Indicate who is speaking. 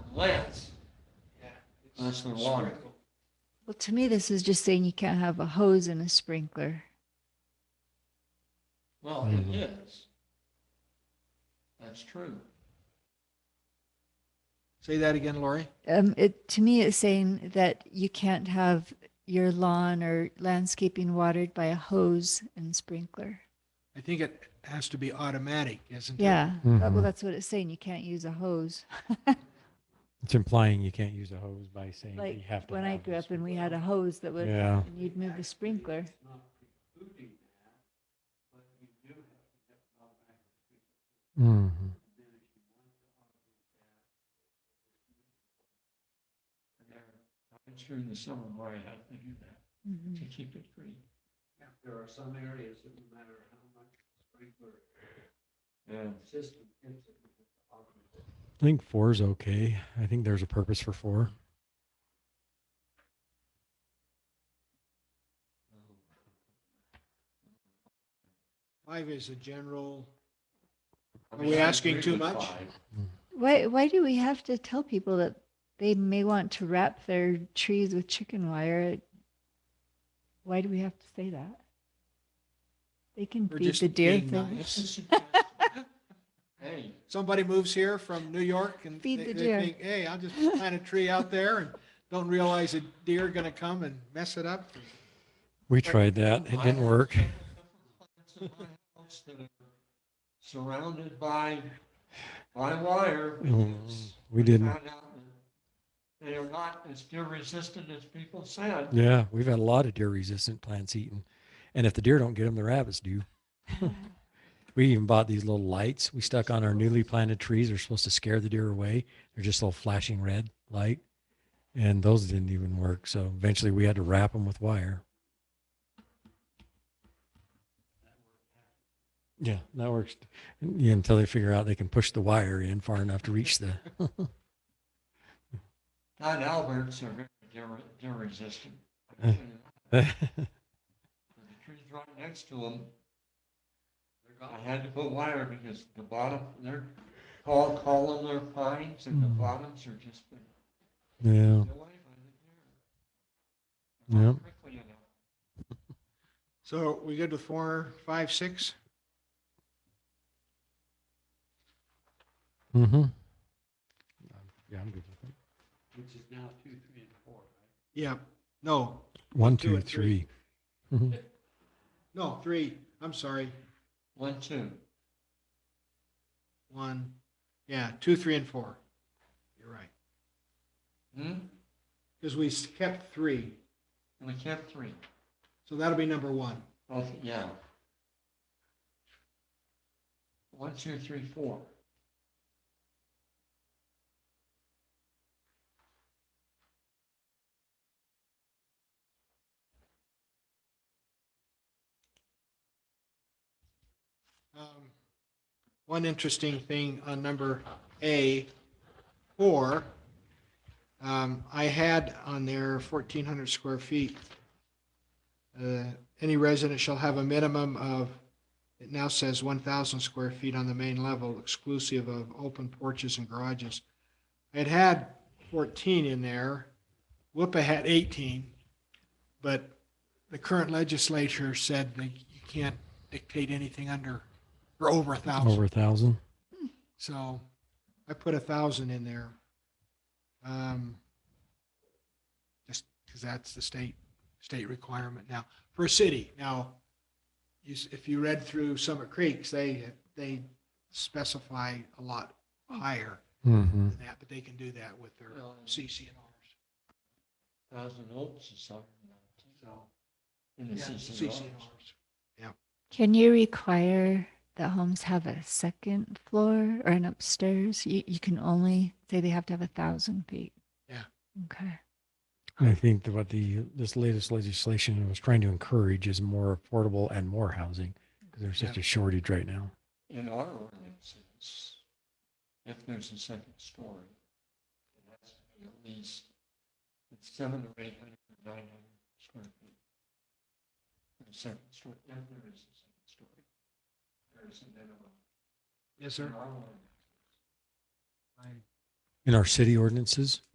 Speaker 1: plans. Yeah, it's
Speaker 2: That's not long.
Speaker 1: sprinkle.
Speaker 3: Well, to me, this is just saying you can't have a hose and a sprinkler.
Speaker 1: Well, it
Speaker 2: Mhm.
Speaker 1: is. That's true.
Speaker 2: Say that again, Lori.
Speaker 3: Um, it, to me, it's saying that you can't have your lawn or landscaping watered by a hose and sprinkler.
Speaker 2: I think it has to be automatic, isn't it?
Speaker 3: Yeah, that- well,
Speaker 4: Mhm.
Speaker 3: that's what it's saying. You can't use a hose.
Speaker 4: It's implying you can't use a hose by saying that you
Speaker 3: Like
Speaker 4: have to.
Speaker 3: when I
Speaker 4: have
Speaker 3: grew
Speaker 4: a
Speaker 3: up and we
Speaker 4: sprinkler.
Speaker 3: had a hose that would,
Speaker 4: Yeah.
Speaker 3: and you'd move the sprinkler.
Speaker 4: Mhm.
Speaker 1: And there- I've been sure in the summer, Lori, how to do that
Speaker 3: Mhm.
Speaker 1: to keep it green.
Speaker 5: There are some areas that no matter how much sprinkler
Speaker 1: Yeah.
Speaker 5: system hits it, it's automatic.
Speaker 4: I think four is okay. I think there's a purpose for four.
Speaker 2: Five is a general, Are we asking too much?
Speaker 3: Why, why do we have to tell people that they may want to wrap their trees with chicken wire? It- Why do we have to say that? They can
Speaker 2: we're
Speaker 3: feed
Speaker 2: just
Speaker 3: the deer
Speaker 2: being
Speaker 3: thing.
Speaker 2: nice.
Speaker 1: Hey,
Speaker 2: Somebody moves here from New York and they
Speaker 3: Feed
Speaker 2: they
Speaker 3: the deer.
Speaker 2: think, hey, I'll just plant a tree out there and don't realize a deer going to come and mess it up.
Speaker 4: We tried that. It didn't work.
Speaker 1: Surrounded by, by wire.
Speaker 4: Mm,
Speaker 1: because
Speaker 4: We
Speaker 1: we
Speaker 4: didn't.
Speaker 1: found out that They are not as deer resistant as people said.
Speaker 4: Yeah, we've had a lot of deer resistant plants eaten. And if the deer don't get them, the rabbits do. we even bought these little lights we stuck on our newly planted trees. They're supposed to scare the deer away. They're just a little flashing red light. And those didn't even work. So eventually we had to wrap them with wire. Yeah, that works yeah, until they figure out they can push the wire in far enough to reach the.
Speaker 1: Not Alberts are very deer, deer resistant.
Speaker 4: Uh.
Speaker 1: The trees right next to them,
Speaker 5: They're
Speaker 1: I
Speaker 5: gone.
Speaker 1: had to put wire because the bottom, they're tall columnar pines and the
Speaker 4: Mm.
Speaker 1: bottoms are just. been
Speaker 4: yeah.
Speaker 1: eaten away by the deer. Not
Speaker 4: Yep.
Speaker 1: quickly enough.
Speaker 2: So we good with four, five, six?
Speaker 4: Mm-hmm. Yeah, I'm good with it.
Speaker 5: Which is now two, three, and four, right?
Speaker 2: Yeah, no,
Speaker 4: One,
Speaker 2: two,
Speaker 4: two,
Speaker 2: and three.
Speaker 4: three. Mhm.
Speaker 2: no, three. I'm sorry.
Speaker 1: One, two.
Speaker 2: One, yeah, two, three, and four. You're right.
Speaker 1: Hmm?
Speaker 2: Because we s- kept three.
Speaker 1: And we kept three.
Speaker 2: So that'll be number one.
Speaker 1: Okay, yeah. One, two, three, four.
Speaker 2: Um, One interesting thing on number A, four, um, I had on there fourteen hundred square feet. Uh, Any resident shall have a minimum of, it now says one thousand square feet on the main level exclusive of open porches and garages. It had fourteen in there, Whoopa had eighteen, but the current legislature said that you can't dictate anything under, or over a thousand.
Speaker 4: Over a thousand.
Speaker 2: So I put a thousand in there. Um, just because that's the state, state requirement now for a city. Now, you, s- if you read through Summit Creeks, they, they specify a lot higher
Speaker 4: Mm-hmm.
Speaker 2: than that, but they can do that with their
Speaker 1: Well, and
Speaker 2: CCNRs.
Speaker 1: Thousand volts is something. like
Speaker 2: So,
Speaker 1: that. In the
Speaker 2: yeah,
Speaker 1: CCR.
Speaker 2: CCNRs.
Speaker 3: Can you require that homes have a second floor or an upstairs? You, you can only say they have to have a thousand feet.
Speaker 2: Yeah.
Speaker 3: Okay.
Speaker 4: I think that what the this latest legislation was trying to encourage is more affordable and more housing because there's such a shortage right now.
Speaker 1: in our ordinances, if there's a second story, it has to be at least it's seven or eight hundred or nine hundred square feet. For the second story, if there is a second story, there is a minimum.
Speaker 2: Yes,
Speaker 1: in
Speaker 2: sir.
Speaker 1: our ordinances.
Speaker 2: I
Speaker 4: in our city ordinances.